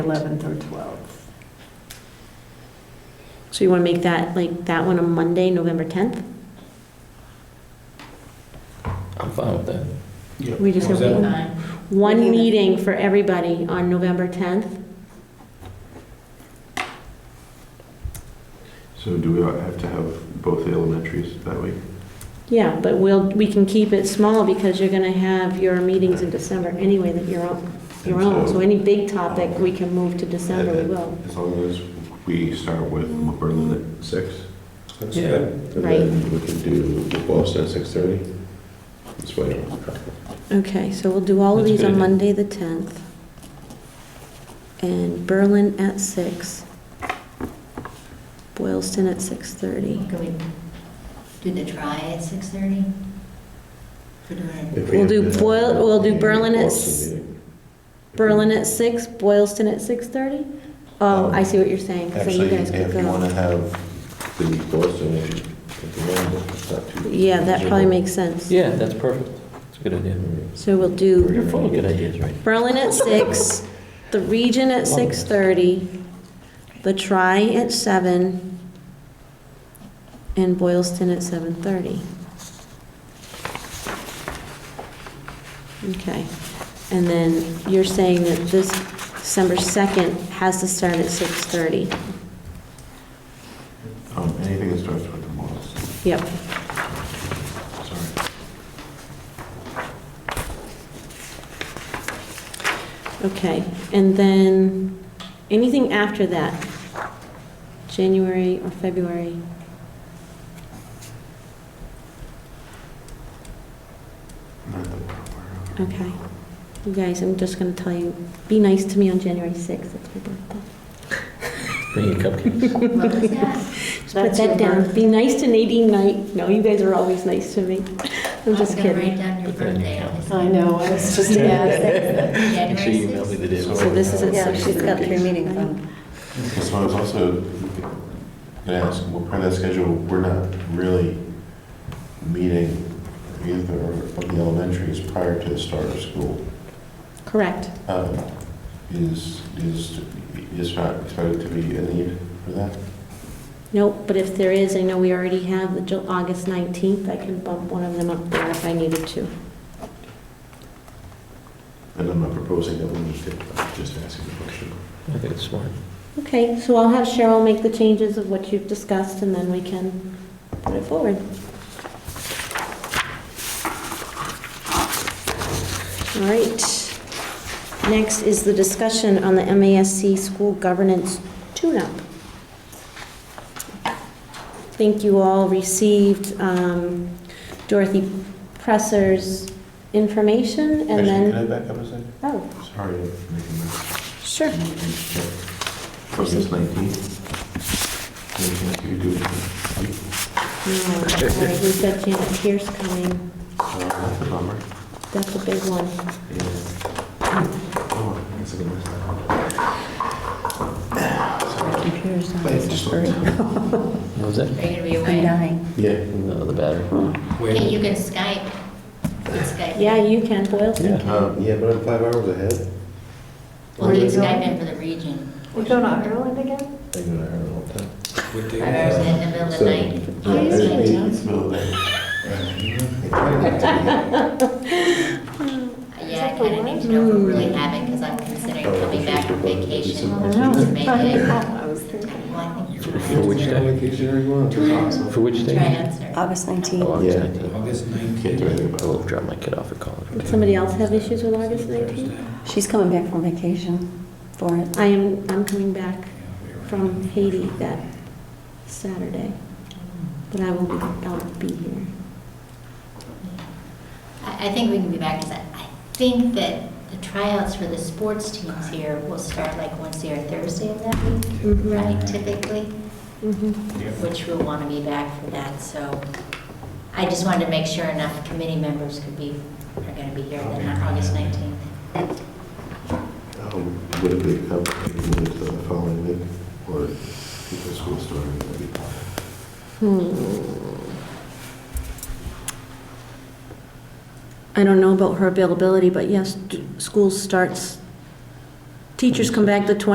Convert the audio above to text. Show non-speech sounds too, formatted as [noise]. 11th or 12th. So you want to make that, like, that one on Monday, November 10th? I'm fine with that. We just have What was that? one- Nine. one Meeting. meeting for everybody on November 10th. So do we have to have both the elementaries that week? Yeah, but we'll, we can keep it small because you're going to have your meetings in December anyway that you're on, your And own. so- So any big topic we can move to December, we will. As long as we start with Berlin at six? That's Yeah. good. And then we can do Boston at six thirty? This way. Okay, so we'll do all of That's these on good. Monday, the 10th. And Berlin at six. Boylston at 6:30. Can we do the try at six thirty? [laughs] We'll do Boyl- we'll do Berlin at s- Berlin at six, Boylston at 6:30? Oh, I see what you're saying, so you Um, Actually, guys could if you want go. to have the Boston, if you, if you want, it's not too. Yeah, that probably makes sense. Yeah, that's perfect. That's a good idea. So we'll do You're full of good ideas, right? Berlin at [laughs] six, the Region at 6:30, the Tri at seven, and Boylston at 7:30. Okay, and then you're saying that this December 2nd has to start at 6:30? Um, anything that starts with the Boston, Yep. sorry. Okay, and then, anything after that? January or February? Not that we're aware of. Okay. You guys, I'm just gonna tell you, be nice to me on January 6th, that's my birthday. Bring your cupcakes. Just put that down, be nice to Nadine Knight, no, you guys are always nice to me. I'm just kidding. Write down your Put that in birthday. your on this. I know, I was just going to Make sure you email me the day. So this is at Yeah, 6:30. she's got three meetings on. Okay, So I was also gonna ask, well, part of that schedule, we're not really meeting either of the elementaries prior to the start of school. Correct. Um, Is, is, is not expected to be a need for that? Nope, but if there is, I know we already have the Ju- August 19th, I can bump one of them up there if I needed to. And I'm not proposing that we need to, I'm just asking the question. I think it's smart. Okay, so I'll have Cheryl make the changes of what you've discussed, and then we can put it forward. All right. Next is the discussion on the MASC school governance tune-up. I think you all received um, Dorothy Presser's information, and Actually, can then... I back up a second? Oh, Sorry, I'm making that. sure. August 19th. Anything you do? No, sorry, We've got Janet Pierce coming. Uh, That's a bummer. That's a big one. Yeah. Oh, that's a good one. Computer's not But it's just- suffering. What was that? Are you gonna be I'm away? dying. Yeah. No, Uh, the battery. Hey, you can Skype. You can Skype. Yeah, you can, Boylston Yeah. can. Um, yeah, but I'm five hours ahead. Well, Where you you can Skype going? in for the region. We're going to Ireland again? I go to Ireland all the time. What day Or is it is that? in the middle of the night? Oh, you it's- stay in town. It's [laughs] middle of the night. Yeah, I kinda need to know if we're really having, because I'm considering coming back from vacation. I I know. which is May eighth. I was thinking Well, I think For- you're For which right. day? For which Try day? answer. August Oh, 19th. August Yeah. 19th. August Can't do 19th. anything I will about it. drop my kid off at college. Did somebody else have issues with August 19th? Thursday. She's coming back from vacation for it. I am, I'm coming back Yeah, we were- from Haiti that Saturday, but I will be, I'll be here. I, I think we can be back, because I, I think that the tryouts for the sports teams here will start like Wednesday or Thursday of that week, Mm. right, typically, Mhm. Yeah. which we'll want to be back for that, so I just wanted to make sure enough committee members could be, are going to be here then on August 19th. Um, Would it be, um, would it the following week or the school starting? Hmm. I don't know about her availability, but yes, d- school starts, teachers come back the 20th.